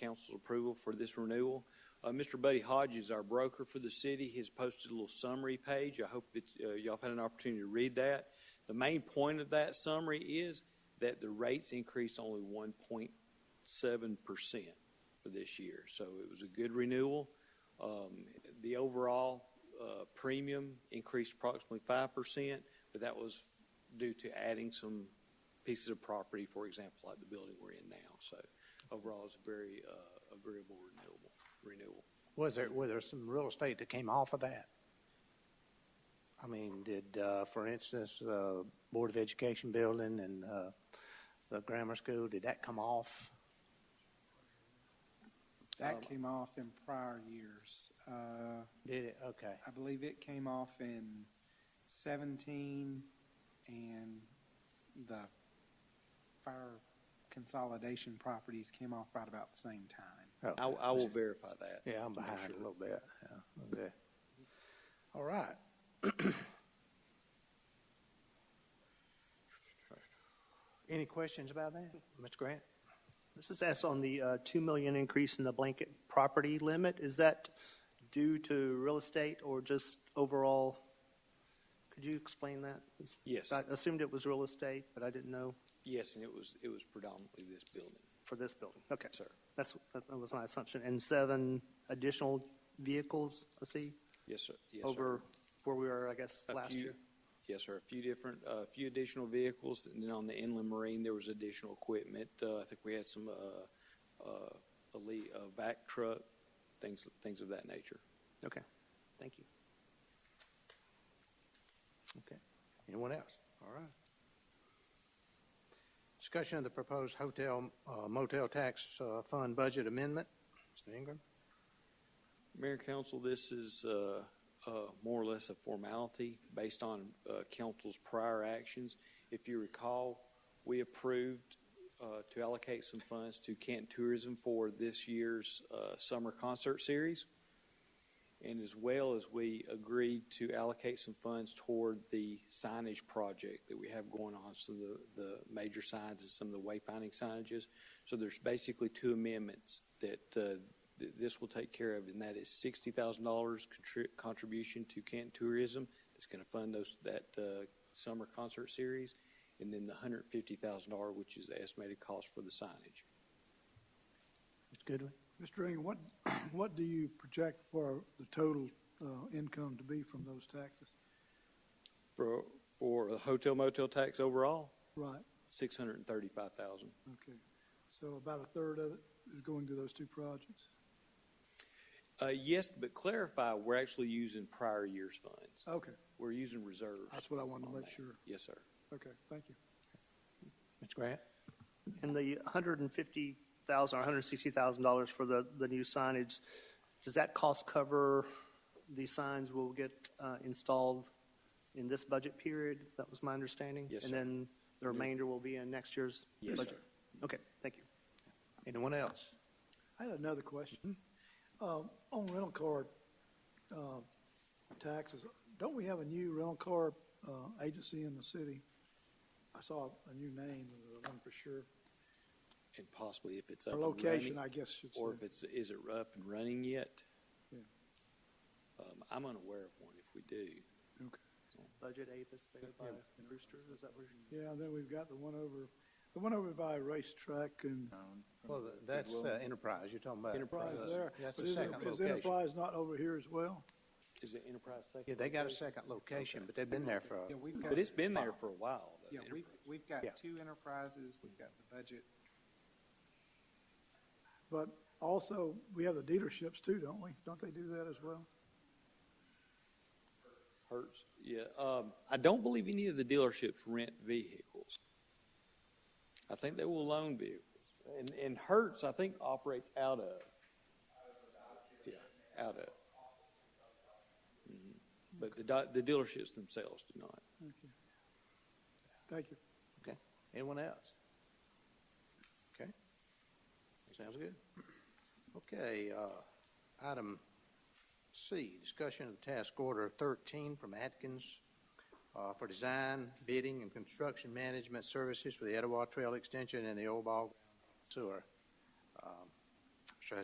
council's approval for this renewal. Uh, Mr. Buddy Hodge is our broker for the city. He's posted a little summary page. I hope that uh, y'all have had an opportunity to read that. The main point of that summary is that the rates increased only one point seven percent for this year. So it was a good renewal. Um, the overall, uh, premium increased approximately five percent, but that was due to adding some pieces of property, for example, like the building we're in now. So overall, it's a very, uh, agreeable renewable, renewal. Was there, were there some real estate that came off of that? I mean, did, uh, for instance, uh, Board of Education building and, uh, the grammar school, did that come off? That came off in prior years. Uh, Did it? Okay. I believe it came off in seventeen and the fire consolidation properties came off right about the same time. Oh, I, I will verify that. Yeah, I'm to make behind a sure. little bit. Yeah, okay. All right. Any questions about that, Mr. Grant? This is asked on the uh, 2 million increase in the blanket property limit. Is that due to real estate or just overall? Could you explain that? Yes. I assumed it was real estate, but I didn't know Yes, and it was, it was predominantly this building. for this building. Okay. Sir. That's, that was my assumption. And seven additional vehicles, I see, Yes, sir. Yes, sir. over where we were, I guess, A last few- year. Yes, sir. A few different, uh, a few additional vehicles, and then on the inland marine, there was additional equipment. Uh, I think we had some, uh, uh, elite, uh, vac truck, things, things of that nature. Okay. Thank you. Okay. Anyone else? All right. Discussion of the proposed hotel uh, motel tax uh, fund budget amendment. Mr. Ingram? Mayor and Council, this is uh, uh, more or less a formality based on uh, council's prior actions. If you recall, we approved uh, to allocate some funds to Canton Tourism for this year's uh, summer concert series. And as well as we agreed to allocate some funds toward the signage project that we have going on, so the, the major signs and some of the wayfinding signages. So there's basically two amendments that uh, th- this will take care of, and that is sixty thousand dollars contribution to Canton Tourism. That's going to fund those, that uh, summer concert series, and then the hundred fifty thousand dollar, which is the estimated cost for the signage. Mr. Goodwin? Mr. Ingram, what, what do you project for the total uh, income to be from those taxes? For, for the hotel motel tax overall, Right, six hundred and thirty-five thousand. okay. So about a third of it is going to those two projects? Uh, yes, but clarify, we're actually using prior year's funds. Okay, We're using reserves. Uh, That's what I wanted to on make that. sure. Yes, sir. okay, thank you. Mr. Grant? And the hundred and fifty thousand or hundred sixty thousand dollars for the, the new signage, does that cost cover the signs will get uh, installed in this budget period? That was my understanding? Yes, And sir. then the remainder will be in next year's Yes, budget? Okay, thank you. Anyone else? I had another question. Um, On rental car uh, taxes, don't we have a new rental car uh, agency in the city? I saw a new name, uh, one for sure. And possibly if it's up Or and running, location, I guess should or say. if it's, is it up and running yet? Yeah. Um, I'm unaware of one if we do. Okay. Budget Avis there by Brewster, is that where? Yeah, and then we've got the one over, the one over by racetrack and Well, that's uh, Enterprise, you're talking about. Enterprise Uh, there. That's But the is it- second Is location. Enterprise not over here as well? Is it Enterprise Second? Yeah, they got a second location, but they've been there for, Yeah, a- we've got, But it's been there for a while. though. yeah, we've, we've got Yeah. two enterprises, we've got the budget. But also, we have the dealerships too, don't we? Don't they do that as well? Hertz, yeah. Um, I don't believe any of the dealerships rent vehicles. I think they will loan vehicles. And, and Hertz, I think, operates out of. Yeah, out of. Mhm. But the, di- the dealerships themselves do not. Okay. Thank you. okay. Anyone else? Okay. Sounds good. Okay, uh, item C, discussion of task order thirteen from Atkins uh, for design, bidding, and construction management services for the Etowah Trail Extension and the Old Ball Sewer. Um,